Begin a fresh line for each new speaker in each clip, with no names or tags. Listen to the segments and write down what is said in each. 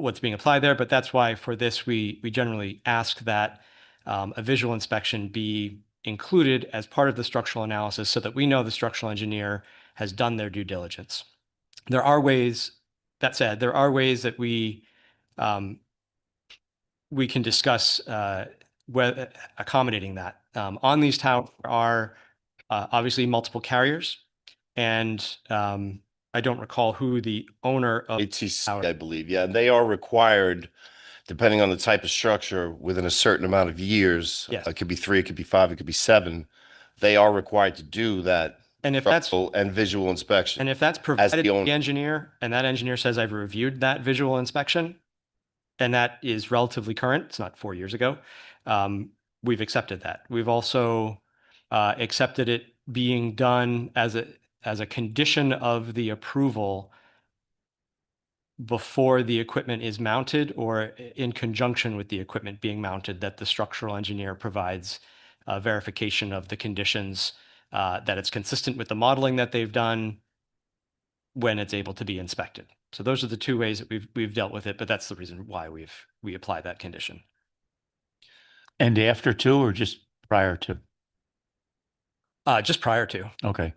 what's being applied there, but that's why for this, we, we generally ask that um, a visual inspection be included as part of the structural analysis so that we know the structural engineer has done their due diligence. There are ways, that said, there are ways that we um, we can discuss uh, whe- accommodating that. Um, on these towers are uh, obviously multiple carriers, and um, I don't recall who the owner of.
ATC,
Our-
I believe. Yeah, they are required, depending on the type of structure, within a certain amount of years. uh,
Yes.
It could be three, it could be five, it could be seven. They are required to do that
And if that's
structural and visual inspection.
and if that's provided
the
to
owner.
the engineer, and that engineer says I've reviewed that visual inspection, and that is relatively current. It's not four years ago. Um, we've accepted that. We've also uh, accepted it being done as a as a condition of the approval before the equipment is mounted or i- in conjunction with the equipment being mounted, that the structural engineer provides uh, verification of the conditions, uh, that it's consistent with the modeling that they've done when it's able to be inspected. So those are the two ways that we've, we've dealt with it, but that's the reason why we've, we apply that condition.
And after two or just prior to?
Uh, just prior to,
Okay.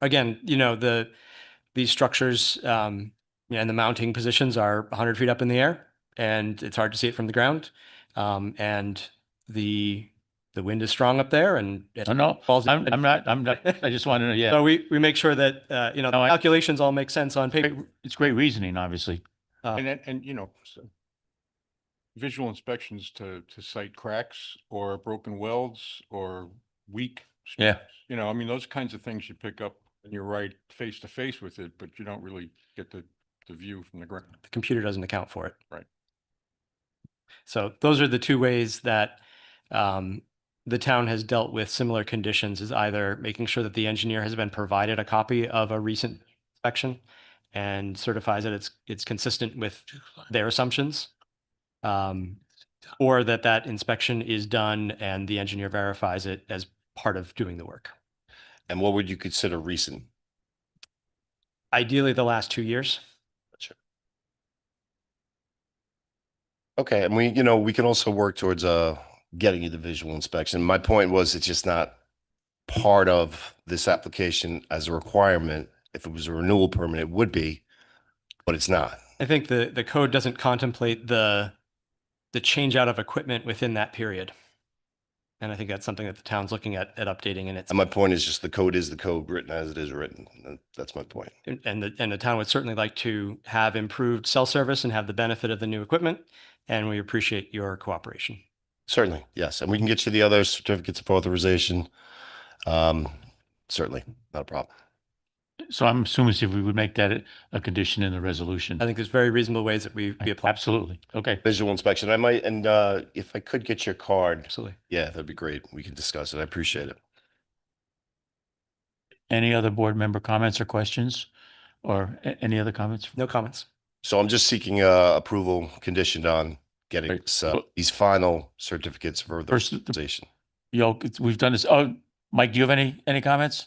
again, you know, the, these structures, um, and the mounting positions are hundred feet up in the air and it's hard to see it from the ground. Um, and the, the wind is strong up there and. it
No, no,
falls.
I'm, I'm not, I'm not, I just want to know, yeah.
So we, we make sure that, uh, you know, the
No, I-
calculations all make sense on paper.
Great- It's great reasoning, obviously.
Uh,
And, and- and, you know, so visual inspections to, to cite cracks or broken welds or weak. s-
Yeah.
You know, I mean, those kinds of things you pick up and you're right face to face with it, but you don't really get the, the view from the ground.
the computer doesn't account for it.
Right.
So those are the two ways that um, the town has dealt with similar conditions is either making sure that the engineer has been provided a copy of a recent inspection and certifies that it's, it's consistent with their assumptions. um, Or that that inspection is done and the engineer verifies it as part of doing the work.
And what would you consider recent?
Ideally, the last two years.
Okay, and we, you know, we can also work towards uh getting you the visual inspection. My point was it's just not part of this application as a requirement. If it was a renewal permit, it would be, but it's not.
I think the, the code doesn't contemplate the, the change out of equipment within that period. And I think that's something that the town's looking at, at updating and it's,
And my point is just the code is the code written as it is written. That- That's my point.
and- and the, and the town would certainly like to have improved cell service and have the benefit of the new equipment. And we appreciate your cooperation.
Certainly, yes. And we can get you the other certificates of authorization. Um, certainly, not a problem.
So I'm assuming if we would make that a- a condition in the resolution.
I think there's very reasonable ways that we, we apply.
Absolutely. Okay.
Visual inspection, I might, and uh, if I could get your card,
Absolutely.
yeah, that'd be great. We can discuss it. I appreciate it.
Any other board member comments or questions? Or a- any other comments?
No comments.
So I'm just seeking uh approval conditioned on getting
Right.
this, uh,
Well-
these final certificates for the
First, the-
authorization.
Yo, it's- we've done this. Oh, Mike, do you have any, any comments?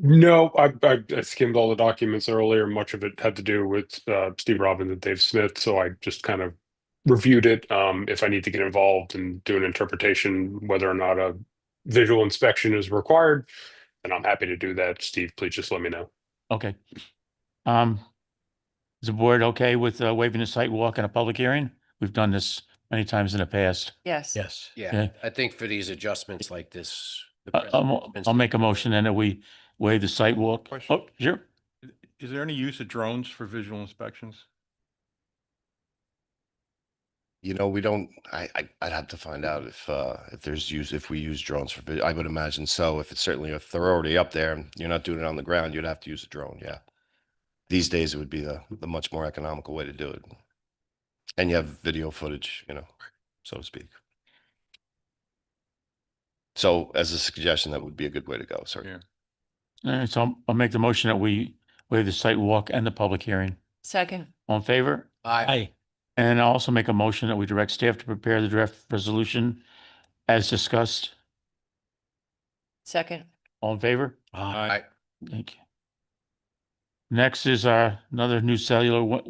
No, I, I I skimmed all the documents earlier. Much of it had to do with uh, Steve Robbins and Dave Smith, so I just kind of reviewed it. Um, if I need to get involved and do an interpretation, whether or not a visual inspection is required, then I'm happy to do that. Steve, please just let me know.
Okay. Um, is the board okay with uh, waiving a site walk and a public hearing? We've done this many times in the past.
Yes.
Yes.
Yeah.
Yeah, I think for these adjustments like this. the
I- Uh, I'll, mo-
president's-
I'll make a motion then that we waive the site walk.
Question.
Oh, sure.
I- Is there any use of drones for visual inspections?
You know, we don't, I, I, I'd have to find out if, uh, if there's use, if we use drones for, vi- I would imagine so. If it's certainly, if they're already up there and you're not doing it on the ground, you'd have to use a drone, yeah. These days, it would be the, the much more economical way to do it. And you have video footage, you know, so to speak. So as a suggestion, that would be a good way to go, certainly.
Yeah.
All right, so I'll- I'll make the motion that we waive the site walk and the public hearing.
Second.
All in favor?
Aye.
And I'll also make a motion that we direct staff to prepare the draft resolution as discussed.
Second.
All in favor?
Aye.
Thank you. Next is our, uh, another new cellular wa-